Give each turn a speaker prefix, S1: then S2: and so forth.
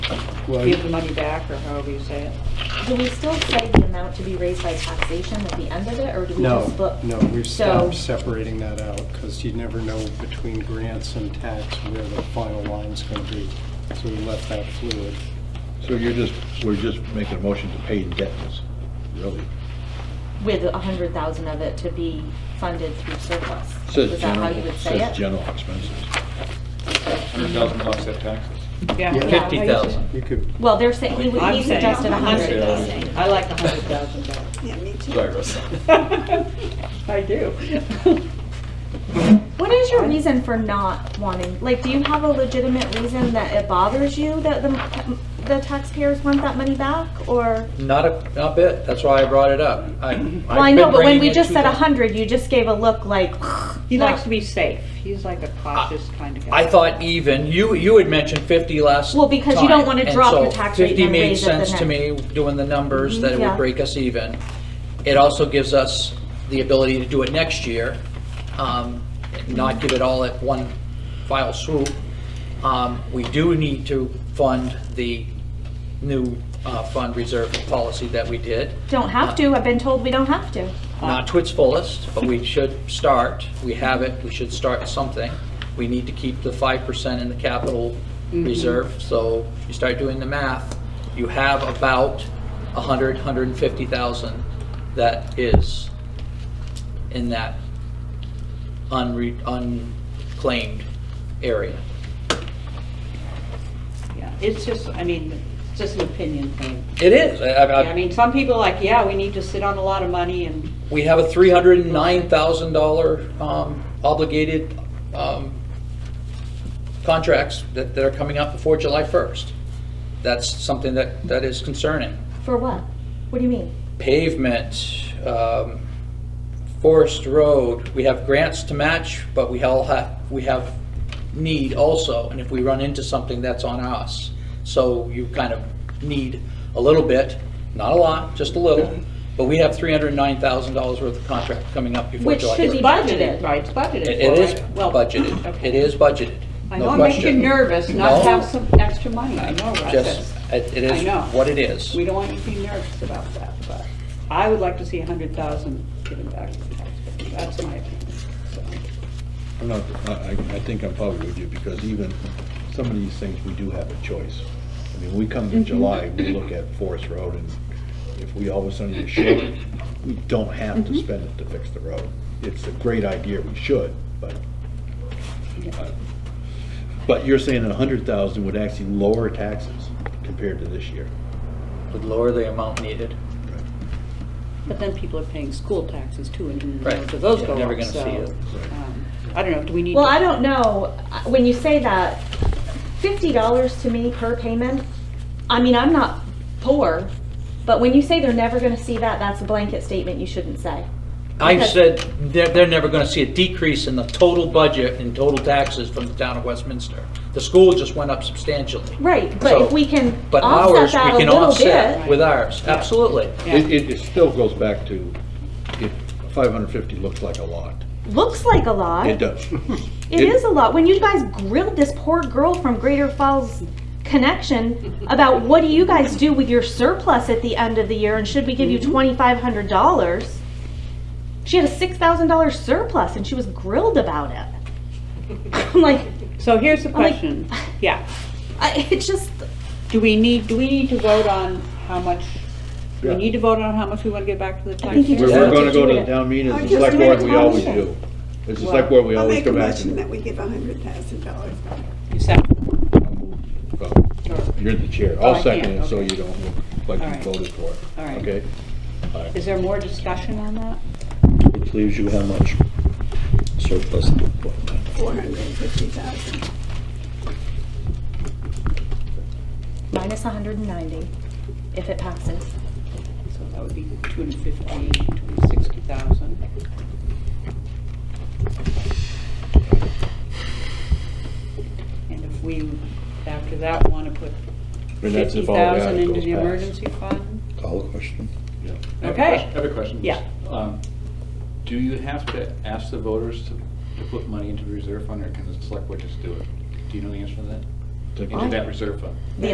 S1: give the money back, or however you say it.
S2: Do we still say the amount to be raised by taxation at the end of it, or do we
S3: No,
S2: just look?
S3: no, we've stopped
S2: So,
S3: separating that out because you never know between grants and tax where the final line's going to be. So we left that fluid.
S4: So you're just, we're just making a motion to pay indebtedness, really?
S2: with a hundred thousand of it to be funded through surplus?
S4: Says
S2: Is that how you
S4: general,
S2: would say
S4: says
S2: it?
S4: general expenses.
S5: Hundred thousand offset taxes.
S3: Yeah.
S1: Yeah.
S2: Yeah.
S6: Fifty thousand.
S3: You could,
S2: Well, they're saying, he would-
S1: I'm
S2: he
S1: saying-
S2: suggested a
S1: I'm
S2: hundred.
S1: saying-
S5: Yeah.
S1: I like the hundred thousand dollars.
S7: Yeah, me too.
S6: Sorry, Russ.
S1: I do.
S2: What is your reason for not wanting, like, do you have a legitimate reason that it bothers you that the, the taxpayers want that money back, or?
S6: Not a, not a bit, that's why I brought it up. I-
S2: Well, I know,
S6: been
S2: but when
S6: bringing
S2: we
S6: it
S2: just
S6: to
S2: said a
S6: them.
S2: hundred, you just gave a look like.
S1: He
S2: not-
S1: likes to be safe. He's like a cautious kind of guy.
S6: I thought even, you, you had mentioned fifty last
S2: Well, because you don't
S6: time,
S2: wanna
S6: and
S2: drop
S6: so
S2: your tax rate and raise it the Mm-hmm,
S6: Fifty made sense to me, doing the numbers, that it
S2: yeah.
S6: would break us even. It also gives us the ability to do it next year, um, not give it all at one file swoop. Um, we do need to fund the new, uh, fund reserve policy that we did.
S2: Don't have to, I've been told we don't have to.
S6: not to its fullest, but we should start, we have it, we should start something. We need to keep the 5% in the capital
S1: Mm-hmm.
S6: reserve, so you start doing the math, you have about 100, 150,000 that is in that unre, unclaimed area.
S1: Yeah, It's just, I mean, it's just an opinion thing.
S6: It is, I- I- I-
S1: Yeah, I mean, some people are like, yeah, we need to sit on a lot of money and
S6: we have a $309,000 um, obligated um, contracts that that are coming up before July 1st. That's something that, that is concerning.
S2: For what? What do you mean?
S6: Pavement, um, Forest Road, we have grants to match, but we all have, we have need also, and if we run into something, that's on us. So you kind of need a little bit, not a lot, just a little, but we have $309,000 worth of contract coming up before
S2: Which
S6: July 1st.
S2: should
S1: it's
S2: be
S1: budgeted,
S2: budgeted.
S1: right? It's budgeted.
S6: It
S1: for,
S6: it is
S1: right? Well,
S6: budgeted,
S1: okay.
S6: it is budgeted.
S1: I
S6: no
S1: know it makes you
S6: question.
S1: nervous not
S6: No,
S1: to have some extra money. I know, Russ.
S6: Just, it it
S1: I know.
S6: is what it is.
S1: We don't want you to be nervous about that, but I would like to see a hundred thousand given back to the taxpayer. That's my opinion. So,
S4: I'm not, I, I- I think I'm probably with you, because even some of these things, we do have a choice. I mean, we come
S2: Mm-hmm.
S4: to July, we look at Forest Road, and if we all of a sudden are short, we don't have
S2: Mm-hmm.
S4: to spend it to fix the road. It's a great idea, we should, but, uh, but you're saying a hundred thousand would actually lower taxes compared to this year.
S6: Would lower the amount needed.
S1: But then people are paying school taxes too, and who
S6: Right.
S1: knows if those
S6: You're
S1: go up, so.
S6: never gonna see it.
S1: um, I don't know, do we need?
S2: Well,
S1: to-
S2: I don't know, Uh, when you say that, fifty dollars to me per payment, I mean, I'm not poor, but when you say they're never gonna see that, that's a blanket statement you shouldn't say.
S6: I
S2: Because-
S6: said, they're, they're never gonna see a decrease in the total budget and total taxes from the town of Westminster. The school just went up substantially.
S2: Right, but
S6: So-
S2: if we can
S6: But
S2: offset
S6: ours,
S2: that a
S6: we can
S2: little
S6: offset
S2: bit.
S6: with ours, absolutely.
S1: Yeah.
S4: It, it- it still goes back to, if five hundred fifty looks like a lot,
S2: Looks like a lot.
S4: it does.
S2: It is a lot. When you guys grilled this poor girl from Greater Falls Connection about what do you guys do with your surplus at the end of the year and should we give you $2,500? She had a $6,000 surplus and she was grilled about it. I'm like,
S1: So here's the
S2: like-
S1: question, yeah.
S2: I, it's just,
S1: Do we need, do we need to vote on how much, do we
S4: Yeah.
S1: need to vote on how much we want to get back to the
S2: I think you
S4: We're,
S2: just
S4: we're
S2: have
S4: gonna
S2: to
S4: go
S2: do
S4: to the
S2: it.
S4: town meeting,
S7: I
S4: it's
S7: just
S4: like
S7: made a
S4: what we always
S7: motion.
S4: do. It's just like where we
S7: I'll
S4: always
S7: make a
S4: go back
S7: motion that
S4: to.
S7: we give a hundred thousand dollars back.
S1: You said-
S4: Oh, You're the chair,
S1: Oh, I
S4: I'll
S1: can't,
S4: second it, so
S1: okay.
S4: you don't look like
S1: All
S4: you
S1: right.
S4: voted for it,
S1: All right.
S4: okay?
S1: Is there more discussion on that?
S8: Which leaves you how much surplus?
S7: Four hundred and fifty thousand.
S2: Minus 190 if it passes.
S1: So that would be 250, 260,000. And if we, after that, want to put
S4: And that's if
S1: 50,000
S4: all that
S1: into
S4: goes
S1: the
S4: back.
S1: emergency fund?
S8: Call the question.
S5: I have a
S1: Okay.
S5: question- I have a question.
S1: Yeah.
S5: Um, Do you have to ask the voters to to put money into the reserve fund, or can the select board just do it? Do you know the answer to that?
S4: Take-
S5: Into that reserve fund?